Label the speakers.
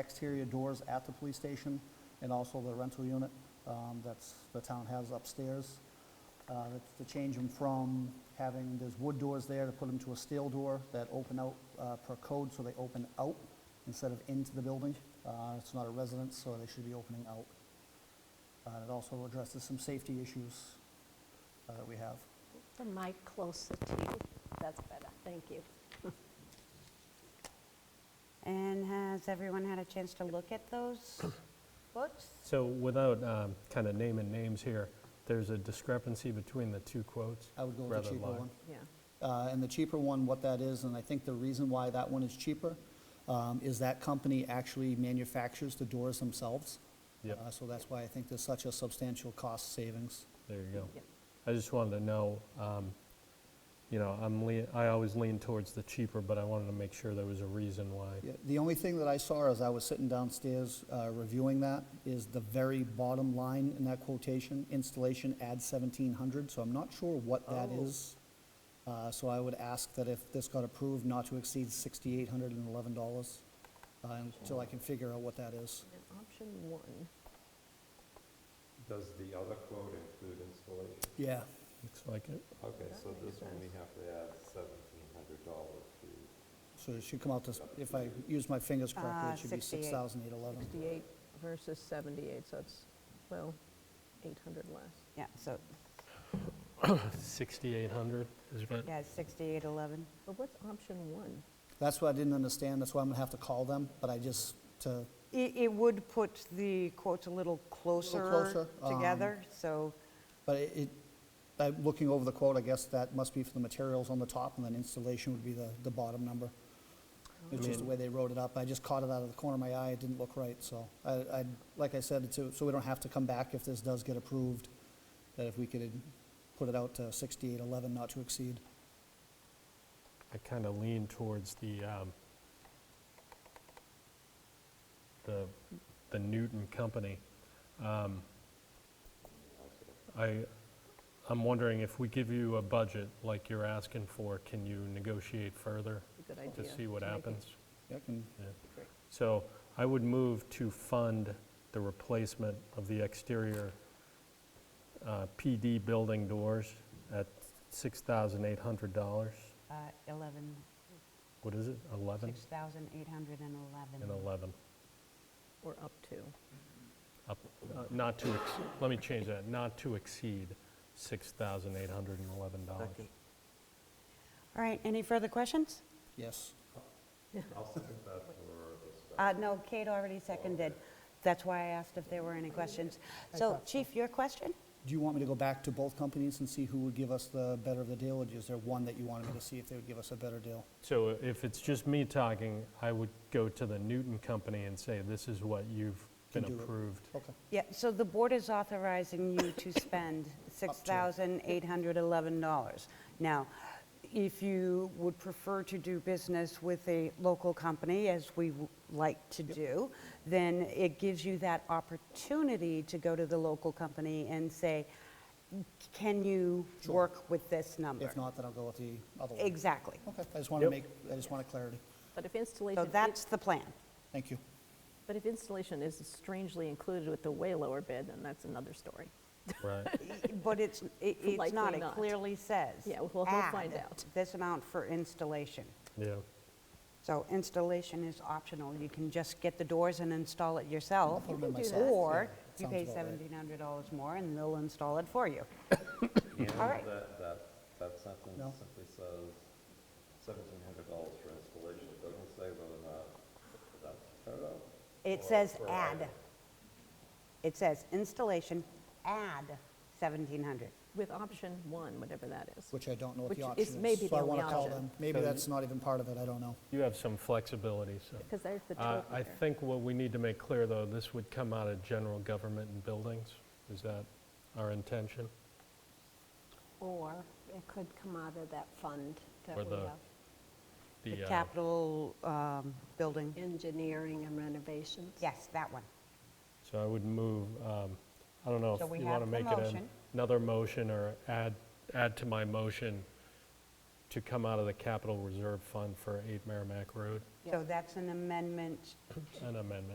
Speaker 1: exterior doors at the police station and also the rental unit um, that's, the town has upstairs. Uh, that's To change them from having, there's wood doors there, to put them to a steel door that open out uh, per code, so they open out instead of into the building. Uh, It's not a residence, so they should be opening out. Uh, It also addresses some safety issues uh, that we have.
Speaker 2: The mic closer to you, that's better, thank you.
Speaker 3: And has everyone had a chance to look at those books?
Speaker 4: So without kind of naming names here, there's a discrepancy between the two quotes?
Speaker 1: I would go with
Speaker 4: rather
Speaker 1: the
Speaker 4: than
Speaker 1: cheaper
Speaker 4: line.
Speaker 1: one.
Speaker 5: Yeah.
Speaker 1: Uh, And the cheaper one, what that is, and I think the reason why that one is cheaper, um, is that company actually manufactures the doors themselves.
Speaker 4: Yep.
Speaker 1: Uh, So that's why I think there's such a substantial cost savings.
Speaker 4: There you go.
Speaker 5: Yep.
Speaker 4: I just wanted to know, um, you know, I'm lean, I always lean towards the cheaper, but I wanted to make sure there was a reason why.
Speaker 1: Yeah, The only thing that I saw as I was sitting downstairs uh, reviewing that is the very bottom line in that quotation, installation adds 1,700, so I'm not sure what that
Speaker 5: Oh.
Speaker 1: is. Uh, So I would ask that if this got approved, not to exceed $6,811, uh, until I can figure out what that is.
Speaker 5: And option one,
Speaker 6: Does the other quote include installation?
Speaker 1: Yeah.
Speaker 4: Looks like it.
Speaker 6: Okay,
Speaker 5: That
Speaker 6: so
Speaker 5: makes
Speaker 6: this one we
Speaker 5: sense.
Speaker 6: have to add seventeen hundred dollars to,
Speaker 1: So it should come out to, s- if I use my fingers correctly,
Speaker 3: Uh,
Speaker 1: it should be
Speaker 3: 68.
Speaker 1: 6,811.
Speaker 5: 68 versus 78, so it's, well, 800 less.
Speaker 3: Yeah, so,
Speaker 4: 6,800 is what?
Speaker 3: yeah, 6811.
Speaker 5: But what's option one?
Speaker 1: That's what I didn't understand, that's why I'm gonna have to call them, but I just, to,
Speaker 3: It, it would put the quotes a little
Speaker 1: closer,
Speaker 3: closer
Speaker 1: um,
Speaker 3: together, so,
Speaker 1: but it- it, I'm looking over the quote, I guess that must be for the materials on the top, and then installation would be the, the bottom number. It's just the way they wrote it up, I just caught it out of the corner of my eye, it didn't look right, so I, I, like I said, to- so we don't have to come back if this does get approved, that if we could put it out to 6,811, not to exceed.
Speaker 4: I kind of lean towards the, um, the, the Newton Company. Um, I, I'm wondering if we give you a budget like you're asking for, can you negotiate further
Speaker 5: Good idea.
Speaker 4: to see what
Speaker 5: Make it-
Speaker 4: happens?
Speaker 1: Yeah, can,
Speaker 4: Yeah.
Speaker 5: Great.
Speaker 4: So I would move to fund the replacement of the exterior uh, PD building doors at $6,800.
Speaker 3: uh, 11,
Speaker 4: What is it, 11?
Speaker 3: 6,811.
Speaker 4: And 11,
Speaker 5: Or up to.
Speaker 4: up, uh, not to, ex- let me change that, not to exceed $6,811.
Speaker 3: All right, any further questions?
Speaker 1: yes.
Speaker 6: I'll second that for the special.
Speaker 3: Uh, no, Kate already seconded. That's why I asked if there were any questions. So, Chief, your question?
Speaker 1: Do you want me to go back to both companies and see who would give us the better of the deal, or is there one that you wanted me to see if they would give us a better deal?
Speaker 4: So uh, if it's just me talking, I would go to the Newton Company and say, this is what you've
Speaker 1: Can
Speaker 4: been
Speaker 1: do it.
Speaker 4: approved.
Speaker 1: Okay.
Speaker 3: Yeah, so the board is authorizing you to spend $6,811. Now, if you would prefer to do business with a local company, as we w- like to do, then it gives you that opportunity to go to the local company and say, can you work with this number?
Speaker 1: If not, then I'll go with the other one.
Speaker 3: Exactly.
Speaker 1: Okay, I just want to
Speaker 4: Yep.
Speaker 1: make, I just wanted clarity.
Speaker 5: But if installation.
Speaker 3: So
Speaker 5: is-
Speaker 3: that's the plan.
Speaker 1: Thank you.
Speaker 5: But if installation is strangely included with the way lower bid, then that's another story.
Speaker 4: Right.
Speaker 3: But it's, it- it's not,
Speaker 5: Likely
Speaker 3: it
Speaker 5: not.
Speaker 3: clearly says.
Speaker 5: Yeah, well, we'll find
Speaker 3: add
Speaker 5: out.
Speaker 3: This amount for installation.
Speaker 4: Yeah.
Speaker 3: So installation is optional, you can just get the doors and install it yourself.
Speaker 1: I'll put 'em in
Speaker 5: You can do
Speaker 1: myself, yeah,
Speaker 3: Or you
Speaker 1: sounds
Speaker 3: pay
Speaker 1: about right.
Speaker 3: $1,700 more and they'll install it for you. all right.
Speaker 6: And that, that, that sentence
Speaker 1: No.
Speaker 6: simply says seventeen hundred dollars for installation, it doesn't say whether or not that's cut out.
Speaker 3: It says add. It says installation, add 1,700.
Speaker 5: With option one, whatever that is.
Speaker 1: Which I don't know what the
Speaker 5: Which
Speaker 1: option
Speaker 5: is
Speaker 1: is.
Speaker 5: maybe
Speaker 1: So I
Speaker 5: the
Speaker 1: want to
Speaker 5: only
Speaker 1: call
Speaker 5: option.
Speaker 1: them. Maybe
Speaker 4: So
Speaker 1: that's not even part of it, I don't know.
Speaker 4: You have some flexibility, so.
Speaker 5: Because there's the
Speaker 4: Uh,
Speaker 5: total
Speaker 4: I
Speaker 5: there.
Speaker 4: think what we need to make clear, though, this would come out of general government and buildings. Is that our intention?
Speaker 2: Or it could come out of that fund that
Speaker 4: Or
Speaker 2: we
Speaker 4: the-
Speaker 2: have,
Speaker 3: The
Speaker 4: uh,
Speaker 3: capital um, building,
Speaker 2: engineering and renovations.
Speaker 3: yes, that one.
Speaker 4: So I would move, um, I don't know if
Speaker 3: So we
Speaker 4: you want
Speaker 3: have
Speaker 4: to
Speaker 3: the
Speaker 4: make it an-
Speaker 3: motion.
Speaker 4: another motion or add, add to my motion to come out of the capital reserve fund for 8 Merrimack Road,
Speaker 3: So that's an amendment
Speaker 4: an amendment.